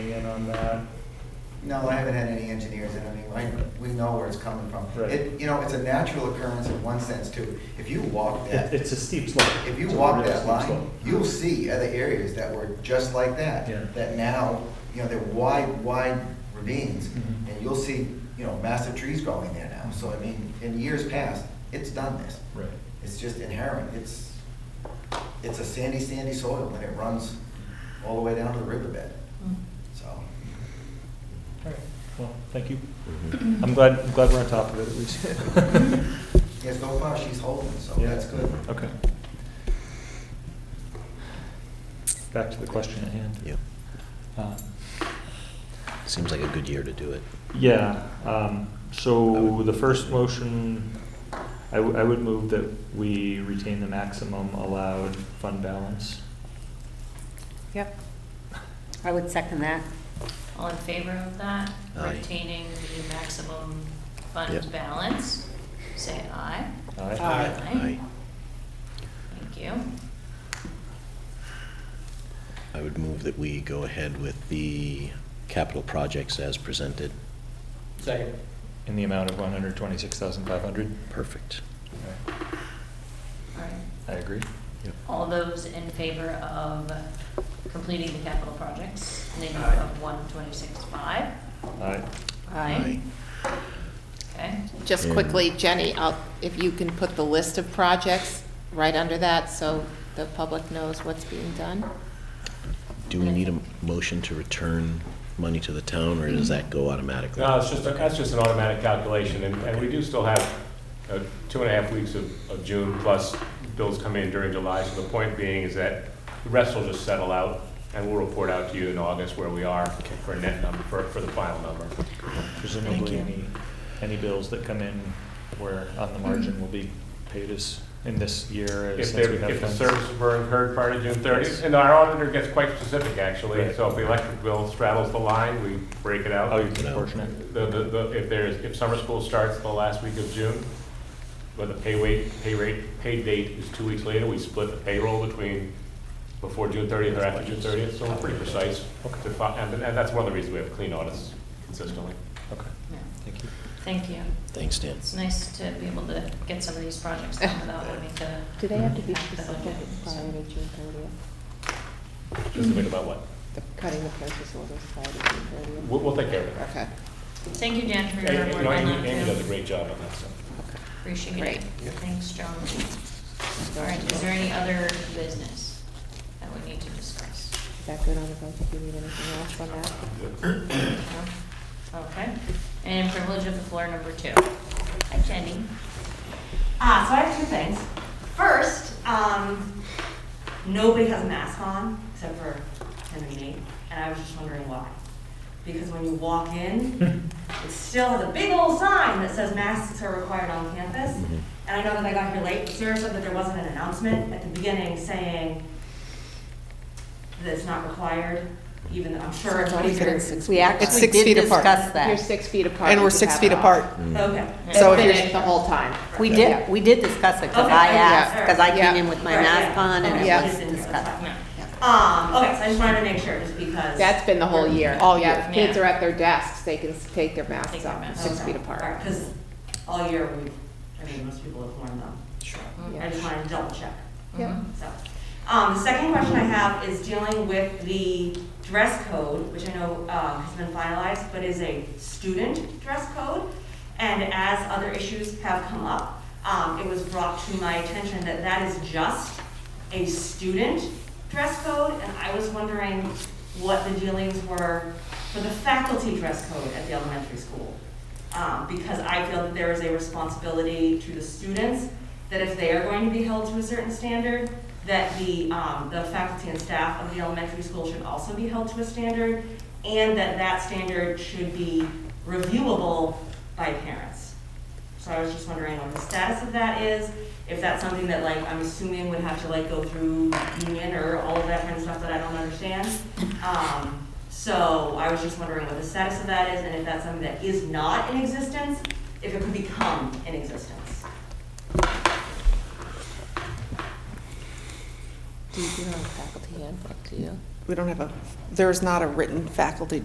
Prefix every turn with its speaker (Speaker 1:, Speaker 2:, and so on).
Speaker 1: opinion on that?
Speaker 2: No, I haven't had any engineers in, I mean, I, we know where it's coming from.
Speaker 1: Right.
Speaker 2: It, you know, it's a natural occurrence in one sense too. If you walk
Speaker 1: It-
Speaker 2: that,
Speaker 1: It's a steep slope.
Speaker 2: if you
Speaker 1: It's a
Speaker 2: walk
Speaker 1: real
Speaker 2: that
Speaker 1: steep
Speaker 2: line,
Speaker 1: slope.
Speaker 2: you'll see other areas that were just like that.
Speaker 1: Yeah.
Speaker 2: That now, you know, they're wide, wide ravines,
Speaker 1: Mhm.
Speaker 2: and you'll see, you know, massive trees growing there now. So I mean, in years past, it's done this.
Speaker 1: Right.
Speaker 2: It's just inherent, it's, it's a sandy, sandy soil, and it runs all the way down to the riverbed, so.
Speaker 1: All right. Well, thank you.
Speaker 3: Mm-hmm.
Speaker 1: I'm glad, I'm glad we're on top of it at least.
Speaker 2: Yes, so far she's holding, so
Speaker 1: Yeah.
Speaker 2: Oh, that's good.
Speaker 1: Okay. Back to the question at hand.
Speaker 3: Yeah,
Speaker 1: Um,
Speaker 3: seems like a good year to do it.
Speaker 1: Yeah, um, so the first motion, I, w- I would move that we retain the maximum allowed fund balance.
Speaker 4: Yep.
Speaker 5: I would second that.
Speaker 4: All in favor of that,
Speaker 3: Aye.
Speaker 4: retaining the maximum fund
Speaker 3: Yep.
Speaker 4: balance, say aye.
Speaker 1: Aye.
Speaker 5: Aye.
Speaker 4: Aye. Thank you.
Speaker 3: I would move that we go ahead with the capital projects as presented.
Speaker 6: Second.
Speaker 1: In the amount of one hundred twenty-six thousand five hundred.
Speaker 3: Perfect.
Speaker 4: All right.
Speaker 1: I agree.
Speaker 3: Yep.
Speaker 4: All those in favor of completing the capital projects, in the amount
Speaker 6: Aye.
Speaker 4: of one twenty-six five?
Speaker 1: Aye.
Speaker 4: Okay,
Speaker 7: Just
Speaker 3: And-
Speaker 7: quickly, Jenny, I'll- if you can put the list of projects right under that, so the public knows what's being done.
Speaker 3: Do we need a motion to return money to the town, or does that go automatically?
Speaker 8: No, it's just, that's just an automatic calculation, and, and we do still have uh, two and a half weeks of, of June, plus bills come in during July, so the point being is that the rest will just settle out, and we'll report out to you in August where we are for a net number, for, for the final number.
Speaker 1: Presumably,
Speaker 3: you.
Speaker 1: any, any bills that come in where on the margin will be paid as, in this year, as
Speaker 8: If
Speaker 1: since
Speaker 8: there,
Speaker 1: we have
Speaker 8: if the
Speaker 1: funds.
Speaker 8: services were incurred prior to June
Speaker 1: Yes.
Speaker 8: thirtieth, and our auditor gets quite specific, actually,
Speaker 1: Right.
Speaker 8: so if the electric bill straddles the line, we break it out.
Speaker 1: Oh, you're
Speaker 3: No.
Speaker 1: proportionate.
Speaker 8: The, the, the, if there's, if summer school starts the last week of June, but the pay wait, pay rate, pay date is two weeks later, we split the payroll between before June thirtieth or after June thirtieth, so we're pretty precise. to fi- And, and that's one of the reasons we have clean audits consistently.
Speaker 1: Okay,
Speaker 4: yeah,
Speaker 1: thank you.
Speaker 4: thank you.
Speaker 3: Thanks, Dan.
Speaker 4: It's nice to be able to get some of these projects done without having to.
Speaker 7: Do
Speaker 1: they have to
Speaker 4: be specific prior to
Speaker 7: June 30th?
Speaker 8: Specific about what?
Speaker 7: Cutting the purchase orders prior to June 30th?
Speaker 8: We'll, we'll take care of it.
Speaker 7: Okay,
Speaker 4: Thank you, Dan, for
Speaker 8: And-
Speaker 4: your
Speaker 8: and, you
Speaker 4: work
Speaker 8: know,
Speaker 4: on
Speaker 8: Amy, Amy
Speaker 4: that
Speaker 8: does a
Speaker 4: too.
Speaker 8: great job on that stuff.
Speaker 7: okay.
Speaker 4: Appreciate it.
Speaker 7: Great.
Speaker 4: Thanks, John. All right, is there any other business that we need to discuss?
Speaker 7: Is that good on the budget? Do you need anything else on that?
Speaker 4: No? Okay, and privilege of the floor number two. Hi, Jenny.
Speaker 9: Ah, so I have two things. First, um, nobody has a mask on except for him and me, and I was just wondering why. Because when you walk in, it still has a big old sign that says masks are required on campus.
Speaker 7: Mm-hmm.
Speaker 3: Mhm.
Speaker 9: And I know that I got here late, Sarah said that there wasn't an announcement at the beginning saying that it's not required, even though I'm sure everybody's here.
Speaker 5: We
Speaker 7: It's
Speaker 5: actually
Speaker 7: six
Speaker 5: did
Speaker 7: feet apart. Mm-hmm.
Speaker 5: discuss that.
Speaker 7: You're six feet apart.
Speaker 10: And
Speaker 7: you
Speaker 10: we're
Speaker 7: can
Speaker 10: six
Speaker 7: have
Speaker 10: feet
Speaker 7: it all.
Speaker 10: apart.
Speaker 9: Okay.
Speaker 7: So
Speaker 5: It's
Speaker 7: if
Speaker 5: been
Speaker 7: you're the whole time.
Speaker 5: We
Speaker 7: Yeah.
Speaker 5: did, we did discuss it, because
Speaker 9: Okay.
Speaker 5: I asked,
Speaker 9: Yeah.
Speaker 5: because I came
Speaker 10: Yeah.
Speaker 5: in with my
Speaker 9: Right,
Speaker 5: mask
Speaker 9: yeah.
Speaker 5: on, and
Speaker 9: Okay,
Speaker 10: Yeah.
Speaker 5: it was
Speaker 9: it's in here, that's
Speaker 5: discussed.
Speaker 9: fine.
Speaker 4: No.
Speaker 9: Um, okay, so I just wanted to make sure, just because.
Speaker 7: That's been the whole year.
Speaker 10: All year.
Speaker 7: Yeah, if kids
Speaker 4: Yeah.
Speaker 7: are at their desks, they can s- take their masks
Speaker 4: Take their
Speaker 7: off,
Speaker 4: masks
Speaker 7: six
Speaker 4: off.
Speaker 7: feet apart.
Speaker 9: Because all year, we, I mean, most people have worn them. Sure. I just wanted to double check,
Speaker 7: Yep.
Speaker 4: Mm-hmm.
Speaker 9: so. Um, the second question I have is dealing with the dress code, which I know, uh, has been finalized, but is a student dress code. And as other issues have come up, um, it was brought to my attention that that is just a student dress code, and I was wondering what the dealings were for the faculty dress code at the elementary school. Um, because I feel that there is a responsibility to the students, that if they are going to be held to a certain standard, that the, um, the faculty and staff of the elementary school should also be held to a standard, and that that standard should be reviewable by parents. So I was just wondering what the status of that is, if that's something that like, I'm assuming would have to like go through union or all of that kind of stuff that I don't understand. Um, so I was just wondering what the status of that is and if that's something that is not in existence, if it could become in existence.
Speaker 7: Do you do it on faculty handbook, do you?
Speaker 10: We don't have a, there's not a written faculty